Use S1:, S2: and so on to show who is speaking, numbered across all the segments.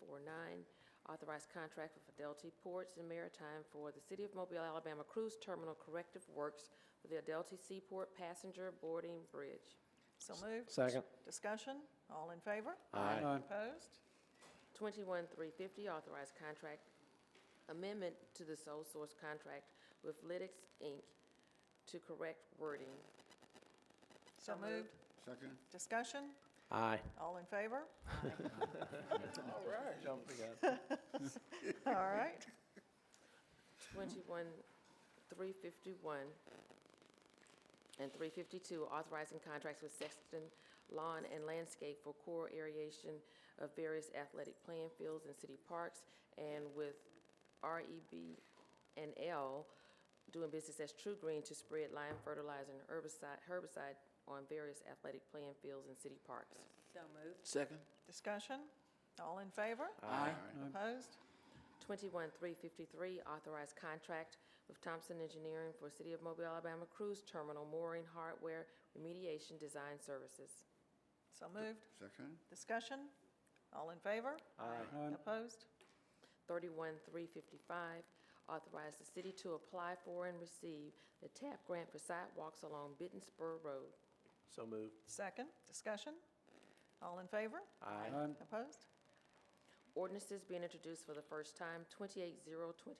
S1: 349, authorized contract for Fidelity Ports and Maritime for the City of Mobile, Alabama Cruise Terminal Corrective Works for the Adelty Seaport Passenger Boarding Bridge.
S2: So moved.
S3: Second.
S2: Discussion, all in favor?
S3: Aye. Aye.
S2: Opposed?
S1: 21350, authorized contract amendment to the sole source contract with Lytics, Inc. to correct wording.
S2: So moved.
S4: Second?
S2: Discussion,
S3: Aye.
S2: all in favor?
S3: All right. Don't forget.
S2: All right.
S1: 21, 351, and 352, authorizing contracts with Sexton Lawn and Landscape for core aeration of various athletic playing fields and city parks, and with REB and L doing business as True Green to spread lime fertilizer and herbicide, herbicide on various athletic playing fields and city parks.
S4: Second?
S2: Discussion, all in favor?
S4: Aye.
S2: Opposed?
S1: 21-353, authorized contract with Thompson Engineering for City of Mobile, Alabama Cruise Terminal Mooring Hardware Remediation Design Services.
S2: So moved.
S4: Second?
S2: Discussion, all in favor? Aye. Opposed?
S1: 31-355, authorized the city to apply for and receive the TAP grant for sidewalks along Bitten Spur Road.
S3: So moved.
S2: Second, discussion, all in favor?
S3: Aye.
S2: Opposed?
S1: Ordinances being introduced for the first time, 28023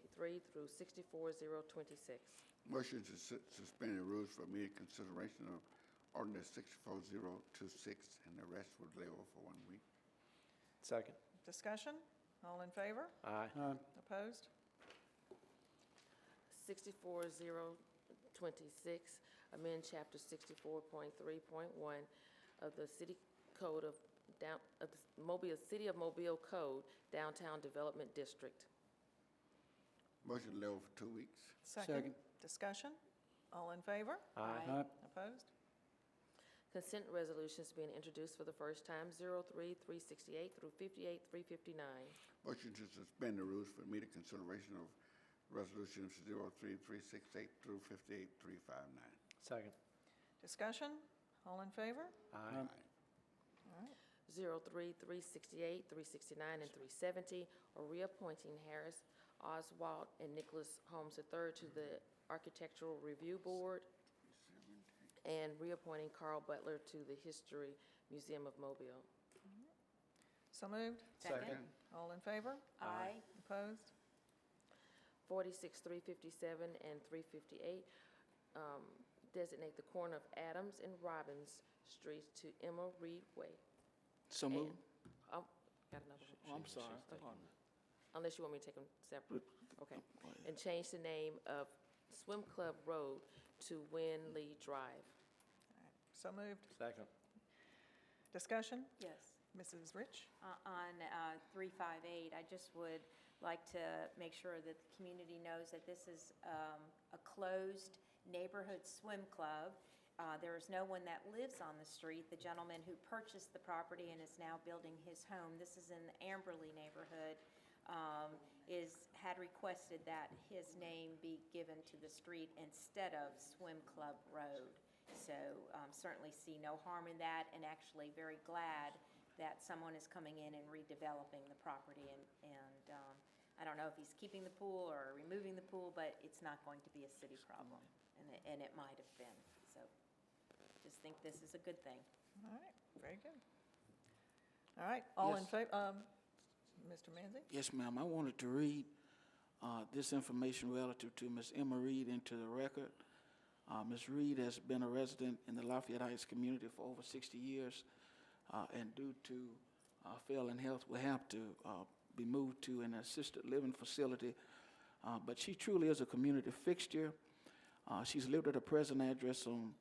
S1: through 64026.
S4: Motion to su- suspend the rules for immediate consideration of ordinance 64026 and the rest would lay over for one week.
S3: Second.
S2: Discussion, all in favor?
S3: Aye.
S2: Opposed?
S1: 64026, amend Chapter 64.3.1 of the City Code of, down of the Mobile, City of Mobile Code Downtown Development District.
S4: Motion to lay over for two weeks.
S2: Second. Discussion, all in favor?
S3: Aye.
S2: Opposed?
S1: Consent resolutions being introduced for the first time, 03368 through 58359.
S4: Motion to suspend the rules for immediate consideration of resolutions 03368 through 58359.
S3: Second.
S2: Discussion, all in favor?
S3: Aye.
S1: 03368, 369, and 370, or reappointing Harris Oswald and Nicholas Holmes III to the Architectural Review Board, and reappointing Carl Butler to the History Museum of Mobile.
S2: So moved.
S3: Second.
S2: All in favor?
S5: Aye.
S2: Opposed?
S1: 46, 357, and 358, um, designate the corner of Adams and Robbins Streets to Emma Reed Way.
S6: So
S1: And-
S6: moved.
S1: Oh, got another one.
S6: Oh, I'm sorry. Pardon me.
S1: unless you want me to take them separate, okay. And change the name of Swim Club Road to Win Lee Drive.
S2: So moved.
S3: Second.
S2: Discussion?
S5: Yes.
S2: Mrs. Rich?
S5: Uh, On uh, 358, I just would like to make sure that the community knows that this is um, a closed neighborhood swim club. Uh, There is no one that lives on the street. The gentleman who purchased the property and is now building his home, this is in the Amberley neighborhood, um, is, had requested that his name be given to the street instead of Swim Club Road. So um, certainly see no harm in that, and actually very glad that someone is coming in and redeveloping the property. And, and um, I don't know if he's keeping the pool or removing the pool, but it's not going to be a city problem, and it, and it might have been. So just think this is a good thing.
S2: All right, very good. All right, all in
S6: Yes.
S2: favor, um, Mr. Manzi?
S6: Yes, ma'am. I wanted to read uh, this information relative to Ms. Emma Reed into the record. Uh, Ms. Reed has been a resident in the Lafayette Heights community for over 60 years, uh, and due to uh, failing health, will have to uh, be moved to an assisted living facility. Uh, But she truly is a community fixture. Uh, She's lived at her present address on,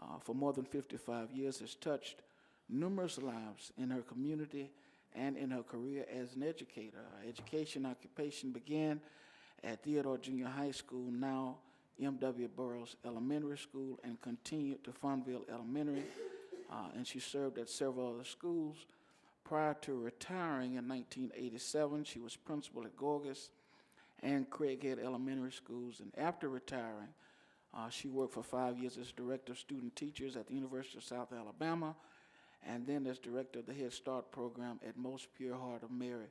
S6: uh, for more than 55 years, has touched numerous lives in her community and in her career as an educator. Her education occupation began at Theodore Junior High School, now M.W. Burroughs Elementary School, and continued to Fonville Elementary, uh, and she served at several other schools. Prior to retiring in 1987, she was principal at Gorgas and Craighead Elementary Schools. And after retiring, uh, she worked for five years as Director of Student Teachers at the University of South Alabama, and then as Director of the Head Start Program at Most Pure Heart of Mary